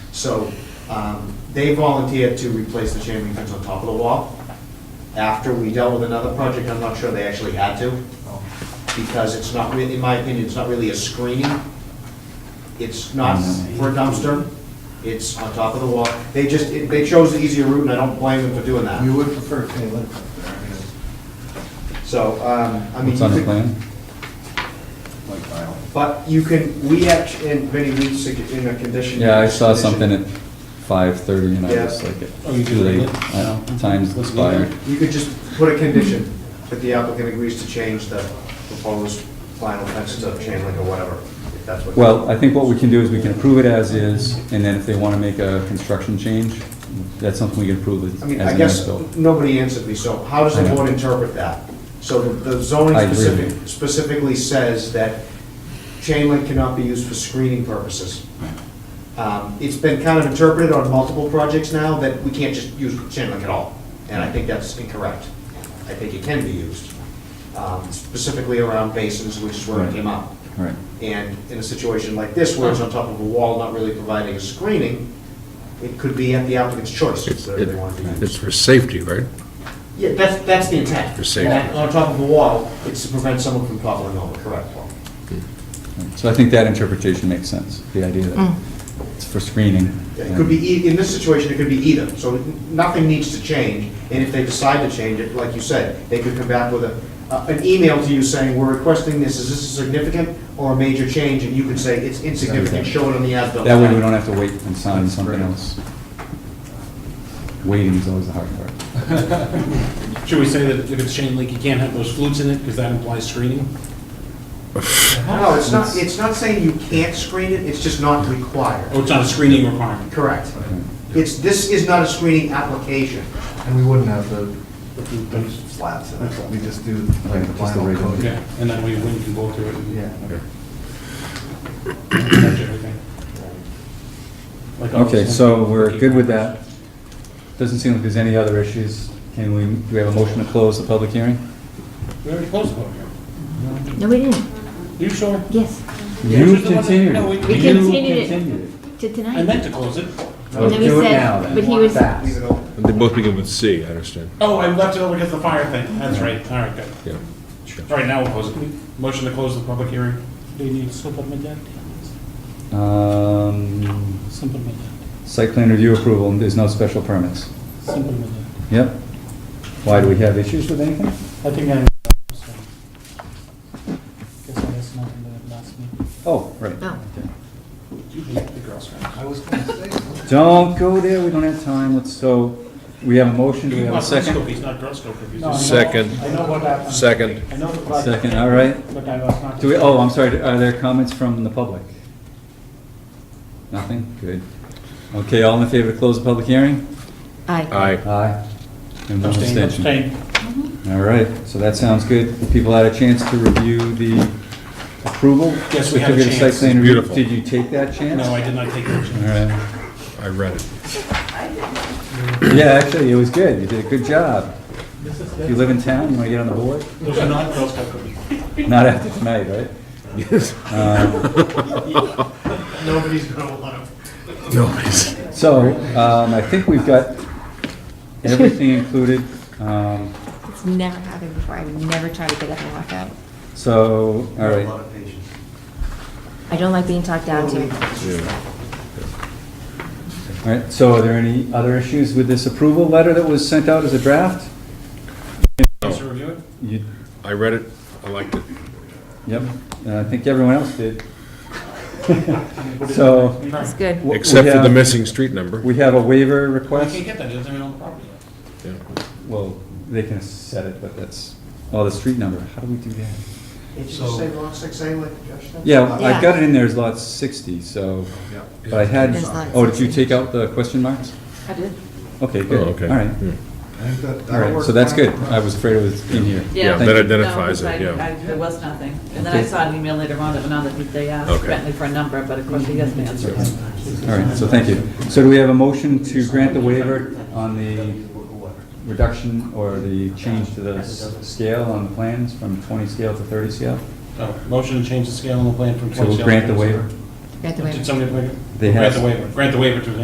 So um, they volunteered to replace the chain link fence on top of the wall. After we dealt with another project, I'm not sure they actually had to, Oh. because it's not really, in my opinion, it's not really a screening. It's not for a dumpster, it's on top of the wall. They just, they chose the easier route, and I don't blame them for doing that. You would prefer Kay Lake up there, I guess. So, um, I mean. What's on you could- the plan? Like tile. But you can, we act, and Vinnie, we, sug- in a condition. Yeah, I saw condition- something at five thirty and I Yeah. was like, it's Oh, you too did late, it? Uh, time's Let's leave it. expired. You could just put a condition that the applicant agrees to change the proposed final fence to chain link or whatever, if that's what. Well, I think what we can do is we can approve it as is, and then if they wanna make a construction change, that's something we can approve I as an mean, I guess, as-built. nobody answered me, so how does I the know. board interpret that? So the the zoning I agree. specific, specifically says that chain link cannot be used for screening purposes. Um, It's been kind of interpreted on multiple projects now that we can't just use chain link at all, and I think that's incorrect. I think it can be used, um, specifically around basins, which is where it Right. came up. Right. And in a situation like this, where it's on top of a wall, not really providing a screening, it could be at the applicant's choice, whether they want to use. It's for safety, right? Yeah, that's, that's the intent. For safety. On- On top of a wall, it's to prevent someone from toppling over, correct? So I think that interpretation makes sense, the idea that it's for screening. It could be, e- in this situation, it could be either, so nothing needs to change, and if they decide to change it, like you said, they could come back with a, a- an email to you saying, we're requesting this, is this a significant or a major change, and you can say, it's insignificant, show it on the as-built. That way we plan." don't have to wait and sign something else. Waiting is always the hard part. Should we say that if it's chain link, you can't have those flutes in it, because that implies screening? No, it's not, it's not saying you can't screen it, it's just not required. Oh, it's not a screening requirement? Correct. It's, this is not a screening application. And we wouldn't have the slats in it, we just do like the Right, just the vinyl regular. coating. Yeah, and that way wind can blow through it and Yeah. catch everything. Like all Okay, those- so we're good with that. Doesn't seem like there's any other issues. Can we, do we have a motion to close the public hearing? We already closed the public hearing. No, we didn't. You sure? Yes, You Which is the one that- continued. no, we- it. We You continued it. continued to tonight. I meant to close it. it. And Well, then we do it said- now then. But he was, Leave it open. They both begin with C, I understand. Oh, I left it over because of the fire thing. That's right, all right, good. Yeah. All right, now we'll close it. Motion to close the public hearing. Do you need to slip up my dad? Um, Simple my dad. Site plan review approval, and there's no special permits. Simple my dad. Yep. Why, do we have issues with anything? I think I. Guess I guess nothing that last meeting. Oh, right. No. Okay. You hate the Girl Scouts. I was gonna say, Don't go there, we don't have time, let's, so, we have a motion, do we have a second? He's not Girl Scout cookies. Second. I know what happened. Second. I know the project. Second, all right. But I was not. Do we, oh, I'm sorry, are there comments from the public? Nothing? Good. Okay, all in favor to close the public hearing? aye. Aye. Aye. And one Abstain, abstention. abstain. All right, so that sounds good. People had a chance to review the approval? Yes, we had a certificate of site chance. plan review. Beautiful. Did you take that chance? No, I did not take All action. right. I read it. Yeah, actually, it was good, you did a good job. If you live in town, you want to get on the board? Those are not Girl Scout cookies. Not after tonight, right? Um, Yes. Nobody's gonna want to. Nobody's. So, um, I think we've got everything included. Um, It's never happened before. I would never try to get up and walk out. So, A all lot right, of patience. I don't like being talked down to. all right, so are there any other issues with this approval letter that was sent out as a draft? Please review it. You, I read it, I liked it. yep, and I think everyone else did. So. That's good. we Except for the have- missing street number. We have a waiver You request. can't get that, it doesn't own the property yet. Yeah. Well, they can set it, but that's, oh, the street number, how do we do that? Did you just say lot six A like Josh said? Yeah, I've Yeah. got it in there as lot 60, so, yeah. but I had, There's lot oh, did you 60. take out the question marks? I did. Okay, Oh, good. okay. All right, Yeah. I think that- all that'll right, work so that's fine. good. I was afraid it was in here. Yeah, Thank that you. identifies it, No, 'cause I- yeah. I- There was nothing. And then I saw an email later on that went on that they asked Okay. Bentley for a number, but of course he doesn't answer it. All right, so thank you. So do we have a motion to grant the waiver on the reduction or the change to the s- scale on the plans from 20 scale to 30 scale? Oh, Motion to change the scale on the plan from So 20 we'll sales grant the to- waiver? Got the waiver. Did somebody make it? They Grant have. the waiver, grant the waiver to